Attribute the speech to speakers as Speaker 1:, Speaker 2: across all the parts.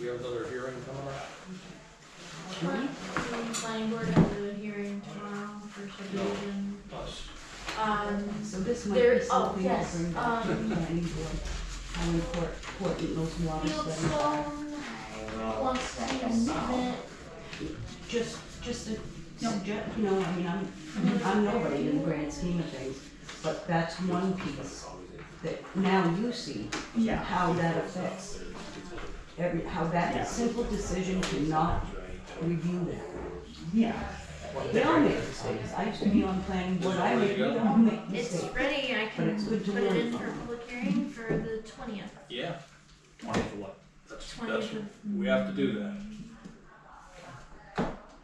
Speaker 1: we have another hearing coming up?
Speaker 2: Planning- Planning board has a hearing tomorrow for subdivision.
Speaker 1: Us.
Speaker 2: Um,
Speaker 3: So this might
Speaker 2: There-
Speaker 3: be
Speaker 2: oh,
Speaker 3: something to
Speaker 2: yes, um,
Speaker 3: bring back to the planning board, how important, important those water studies are.
Speaker 2: Fieldstone wants to submit,
Speaker 3: Just, just a suggest, you know, I mean, I'm, I'm nobody in the grand scheme of things, but that's one piece that now you see
Speaker 4: Yeah.
Speaker 3: how that affects every, how that simple decision to not review that.
Speaker 4: Yeah.
Speaker 3: They all make mistakes, I used to be on planning board, I made, we all make
Speaker 2: it's
Speaker 3: mistakes.
Speaker 2: ready, I can
Speaker 3: it's
Speaker 2: put
Speaker 3: good to
Speaker 2: it in
Speaker 3: learn.
Speaker 2: for public hearing for the twentieth.
Speaker 1: Yeah,
Speaker 4: Twenty for what?
Speaker 1: that's, that's,
Speaker 2: 20th.
Speaker 1: we have to do that.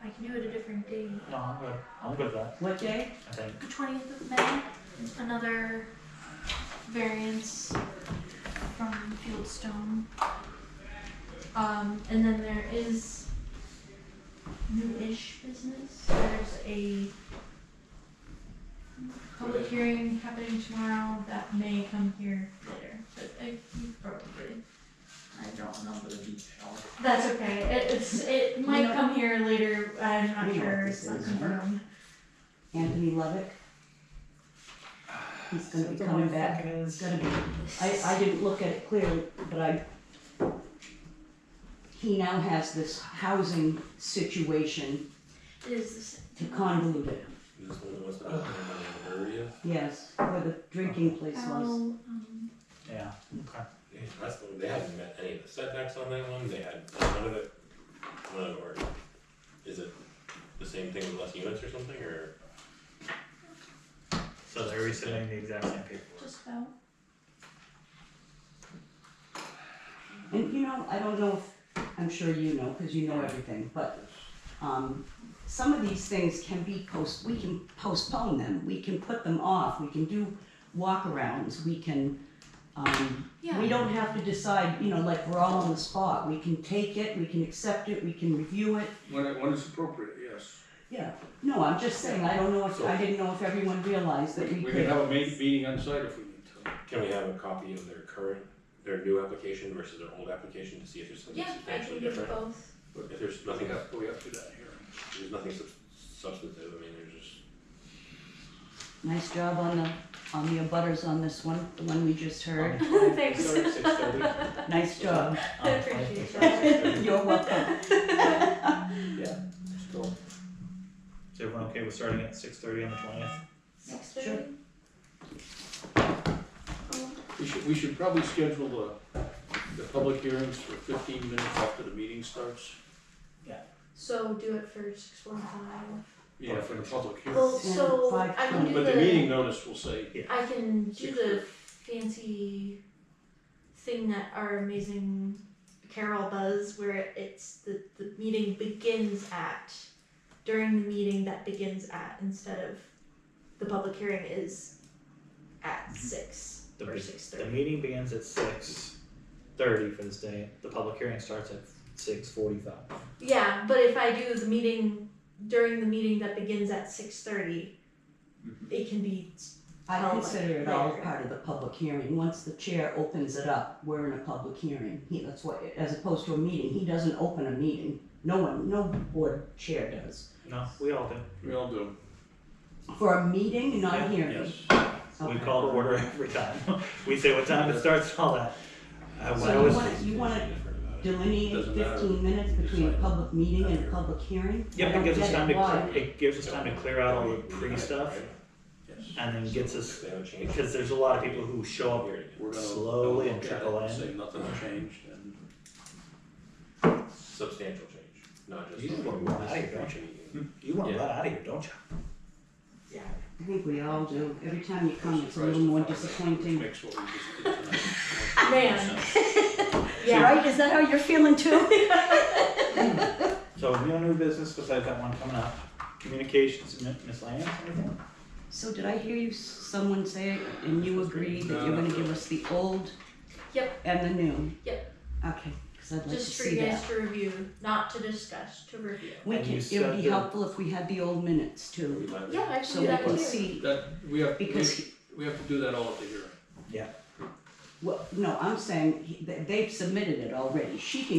Speaker 2: I can do it a different day.
Speaker 4: No, I'm good. I'm good with that.
Speaker 3: What day?
Speaker 4: I think.
Speaker 2: The twentieth of May, another variance from Fieldstone. Um, and then there is new-ish business, there's a public hearing happening tomorrow that may come here later, but I you probably,
Speaker 4: I don't know the details.
Speaker 2: that's okay, it, it's, it might
Speaker 3: know-
Speaker 2: come here later, I'm not
Speaker 3: We know what
Speaker 2: sure,
Speaker 3: this
Speaker 2: it's not
Speaker 3: is.
Speaker 2: confirmed.
Speaker 3: Anthony Levick. He's gonna be coming back. It's gonna be, I, I didn't look at it clearly, but I, he now has this housing situation
Speaker 2: It is the same.
Speaker 3: to convolute it.
Speaker 5: This one was about the area.
Speaker 3: Yes, where the drinking place was.
Speaker 2: I'll, um,
Speaker 4: Yeah. Okay.
Speaker 5: Yeah, that's the one, they hadn't met any of the setbacks on that one, they had none of it, none of it worked. Is it the same thing with less units or something, or?
Speaker 4: So they're resubmitting the exact same paperwork.
Speaker 2: Just about.
Speaker 3: And you know, I don't know if, I'm sure you know, cause you know everything, but, um, some of these things can be post, we can postpone them, we can put them off, we can do walkarounds, we can, um,
Speaker 2: Yeah.
Speaker 3: We don't have to decide, you know, like we're all on the spot. We can take it, we can accept it, we can review it.
Speaker 1: When, it- when it's appropriate, yes.
Speaker 3: Yeah. No, I'm just saying, I don't know if, I didn't know if everyone realized that we
Speaker 1: We can
Speaker 3: could.
Speaker 1: have a ma- meeting on site if we need to.
Speaker 5: Can we have a copy of their current, their new application versus their old application to see if there's something
Speaker 2: Yeah, I can
Speaker 5: substantially
Speaker 2: give
Speaker 5: different?
Speaker 2: both.
Speaker 5: If there's
Speaker 1: I think
Speaker 5: nothing,
Speaker 1: that's, we have to do that hearing.
Speaker 5: there's nothing sub- substantive, I mean, there's just,
Speaker 3: Nice job on the, on the abutters on this one, the one we just heard.
Speaker 2: Thanks.
Speaker 5: Six thirty?
Speaker 3: Nice job.
Speaker 2: I appreciate
Speaker 4: Um,
Speaker 2: that.
Speaker 3: You're welcome.
Speaker 1: Still,
Speaker 4: Is everyone okay with starting at six thirty on the twentieth?
Speaker 2: Six
Speaker 3: Sure.
Speaker 2: thirty?
Speaker 1: we should, we should probably schedule the, the public hearings for fifteen minutes after the meeting starts.
Speaker 2: So do it for six forty-five.
Speaker 1: Yeah, for the public
Speaker 2: Well,
Speaker 1: hearing.
Speaker 2: so I
Speaker 3: five
Speaker 2: can do
Speaker 1: But the meeting
Speaker 2: the,
Speaker 1: notice will say,
Speaker 2: I can do
Speaker 1: Six
Speaker 2: the fancy thing that our amazing Carol does where it's the, the meeting begins at, during the meeting that begins at instead of the public hearing is at six
Speaker 4: The
Speaker 2: or
Speaker 4: big-
Speaker 2: six
Speaker 4: The
Speaker 2: thirty.
Speaker 4: meeting begins at six thirty for this day. The public hearing starts at six forty-five.
Speaker 2: Yeah, but if I do the meeting during the meeting that begins at six
Speaker 3: Mm-hmm.
Speaker 2: it can be
Speaker 3: I consider it all part of the public hearing. Once the chair opens it up, we're in a public hearing. He, that's what, as opposed to a meeting, he doesn't open a meeting. No one, no board chair does.
Speaker 4: No, we all do.
Speaker 1: we all do.
Speaker 3: For a meeting, not a
Speaker 4: Yeah,
Speaker 3: hearing.
Speaker 1: Yes.
Speaker 4: We
Speaker 3: Okay.
Speaker 4: call to order every time. We say what time it starts, all that. I
Speaker 3: So
Speaker 4: I
Speaker 3: you
Speaker 4: was-
Speaker 3: wanna- you wanna delineate
Speaker 1: Doesn't matter.
Speaker 3: fifteen minutes between a public meeting and a public hearing? I
Speaker 4: Yep, it
Speaker 3: don't
Speaker 4: gives us
Speaker 3: get
Speaker 4: time to,
Speaker 3: Why?
Speaker 4: cle- it gives us time to clear out all the pre-stuff
Speaker 1: Yes.
Speaker 4: and then gets us,
Speaker 5: They haven't changed.
Speaker 4: because there's a lot of people who show up
Speaker 5: Here it is.
Speaker 1: We're gonna
Speaker 4: slowly and
Speaker 1: look at it
Speaker 4: trickle in.
Speaker 1: Say nothing changed and.
Speaker 5: substantial change, not just.
Speaker 4: You just want to walk out of here, don't You want to let out of here, don't you?
Speaker 2: yeah.
Speaker 3: I think we all do. Every time you come, it's a little more disappointing.
Speaker 1: Makes what we just did tonight.
Speaker 2: Man. yeah.
Speaker 3: Right, is that how you're feeling too?
Speaker 4: So no new business besides that one coming up. Communications, Mi- Miss Lance, anything?
Speaker 3: So did I hear you, someone say, and you agree that you're gonna give us the old?
Speaker 2: Yep.
Speaker 3: And the new?
Speaker 2: Yep.
Speaker 3: Okay, cause I'd like to
Speaker 2: Just for
Speaker 3: see
Speaker 2: you
Speaker 3: that.
Speaker 2: guys to review, not to discuss, to review.
Speaker 3: We
Speaker 4: And
Speaker 3: can,
Speaker 4: you
Speaker 3: it would
Speaker 4: said
Speaker 3: be
Speaker 4: that-
Speaker 3: helpful if we had the old minutes too,
Speaker 2: Yeah, I can
Speaker 3: so
Speaker 2: do
Speaker 3: we
Speaker 2: that too.
Speaker 3: can see,
Speaker 1: That, we have, we,
Speaker 3: because
Speaker 1: we have to do that all at the hearing.
Speaker 3: Well, no, I'm saying he- they- they've submitted it already. She can